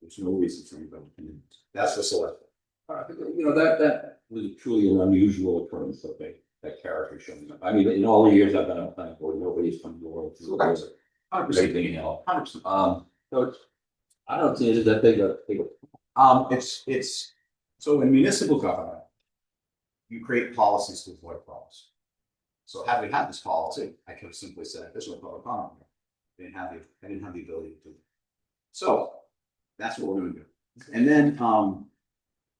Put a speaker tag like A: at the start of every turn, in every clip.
A: There's no reason for anybody to,
B: That's the select.
A: you know, that, that was truly an unusual occurrence of that, that character showing up. I mean, in all the years I've been on planning board, nobody's come to the world.
B: Correct.
A: Hundred percent. Everything else. Hundred percent. Um, so it's, I don't see it as that big a, big a- um,
B: It's, it's, so in municipal government, you create policies to avoid problems. So had we had this policy, I could have simply said, this was a public comment. They Didn't have the, I didn't have the ability to do. it. So that's what we're gonna do. And then, um,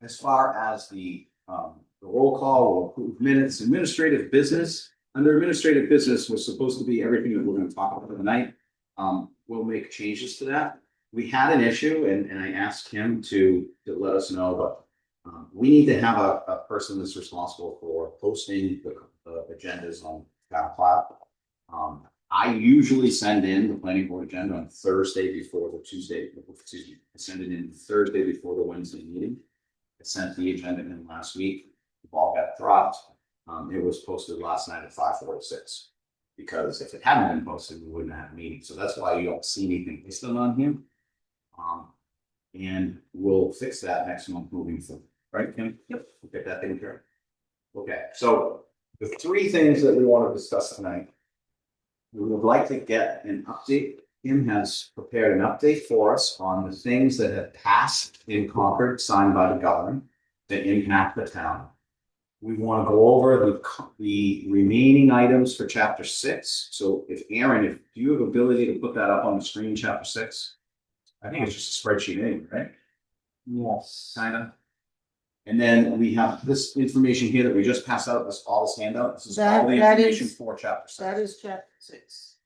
B: as far as the, um, the roll call will approve minutes, administrative business. Under administrative business was supposed to be everything that we're gonna talk about tonight. Um, we'll make changes to that we had an issue and, and I asked him to, to let us know, but. Um, we need to have a, a person that's responsible for posting the, the agendas on town cloud. Um, I usually send in the planning board agenda on Thursday before the Tuesday, excuse me, I send it in Thursday before the Wednesday meeting. I sent the agenda in last week, the ball got dropped. Um, it was posted last night at five forty-six. Because if it hadn't been posted, we wouldn't have a meeting, so that's why you don't see anything listed on here. Um, and we'll fix that next month moving forward, right, Kim? Yep. We'll get that taken care of. Okay, so the three things that we want to discuss tonight. We would like to get an update. Kim has prepared an update for us on the things that have passed in Concord signed by the governor that impact the town. We want to go over the, co- the remaining items for chapter six. So if Aaron, if do you have ability to put that up on the screen, chapter six? I think it's just a spreadsheet anyway, right? Yes. Kinda. And then we have this information here that we just passed out, this all this handout, this is all
C: That-
B: the
C: that
B: information
C: is-
B: for chapter six.
C: That is chapter six.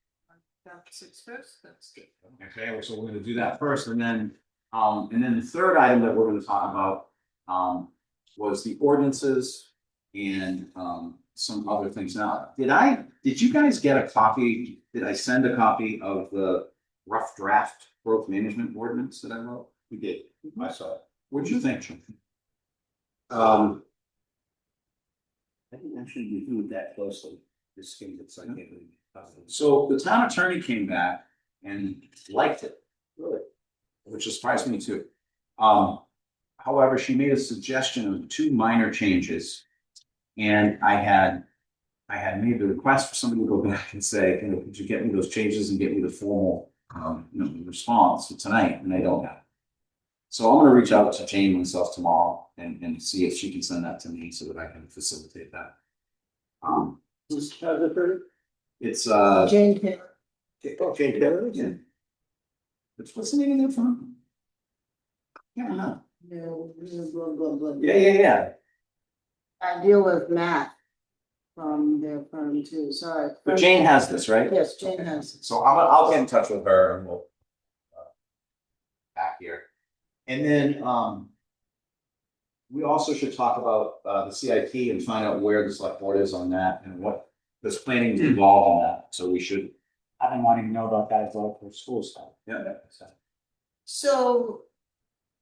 C: Chapter six first, that's good.
B: Okay, well, so we're gonna do that first, and then, um, and then the third item that we're gonna talk about, um, was the ordinances and, um, some other things. Now, did I, did you guys get a copy, did I send a copy of the rough draft growth management ordinance that I wrote? We did.
D: Mm-hmm.
B: I saw it. What'd you think, Jim?
D: Um. I think I should review it that closely, this thing that's like.
B: So the town attorney came back and liked it. Really? Which surprised me too. Um, however, she made a suggestion of two minor changes. And I had, I had made the request for somebody to go back and say, you know, could you get me those changes and get me the formal, um, you know, response for tonight, and I don't have. it. So I'm gonna reach out to Jane myself tomorrow and, and see if she can send that to me so that I can facilitate that. Um,
D: Who's the third?
B: it's, uh,
C: Jane Taylor,
D: Jane Taylor?
B: yeah. It's what's the name of that firm? Yeah, I
D: uh-huh.
B: know.
C: no, blah, blah, blah.
B: yeah, yeah, yeah.
C: I deal with Matt from their firm too, sorry.
B: But Jane has this, right?
C: Yes, Jane has. it.
B: So I'm, I'll get in touch with her and we'll. uh, Back here. And then, um. We also should talk about, uh, the CIP and find out where the select board is on that and what, this planning is involved on that, so we should.
D: I've been wanting to know about that as well for school stuff.
B: Yeah,
C: So,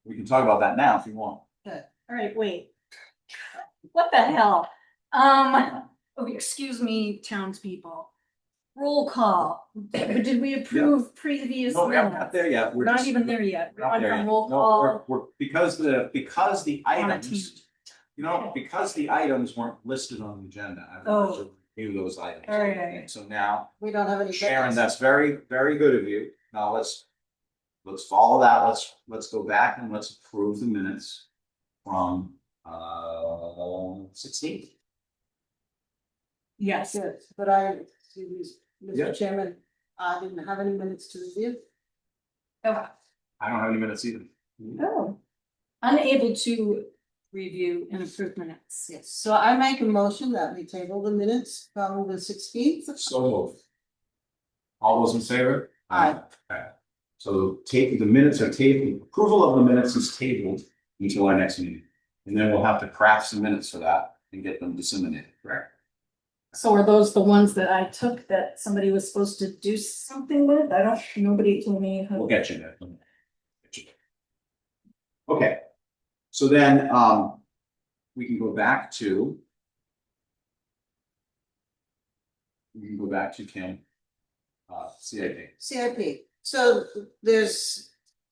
B: we can talk about that now if you want.
E: All right, wait. What the hell? Um, oh, excuse me, townspeople. Roll call. Did we approve previous
B: No, we haven't got
E: minutes?
B: there yet. We're
E: We're not
B: just-
E: even there yet. We're
B: Not
E: on
B: there yet.
E: a roll
B: No,
E: call.
B: we're- we're- because the, because the
E: On a
B: items, you know, because the items weren't listed on the agenda, I wanted to review those items.
E: Oh. All right.
B: So now,
C: we don't have any.
B: Sharon, that's very, very good of you. Now let's, let's follow that. Let's, let's go back and let's approve the minutes from, uh, sixteen.
E: Yes,
C: Yes, but I, excuse me,
B: Yeah.
C: Mr. Chairman, I didn't have any minutes to review.
E: Oh,
B: I don't have any minutes either.
E: oh. Unable to review and approve minutes.
C: Yes, so I make a motion that we table the minutes from the sixteenth.
B: So moved. All those in favor?
C: Aye.
B: Okay. So take, the minutes are tabled, approval of the minutes is tabled until our next meeting. And then we'll have to craft some minutes for that and get them disseminated, correct?
E: So are those the ones that I took that somebody was supposed to do something with? I don't, nobody told me. how-
B: We'll get you there. Get you there. Okay. So then, um, we can go back to we can go back to Kim, uh, CIP.
C: CIP, so there's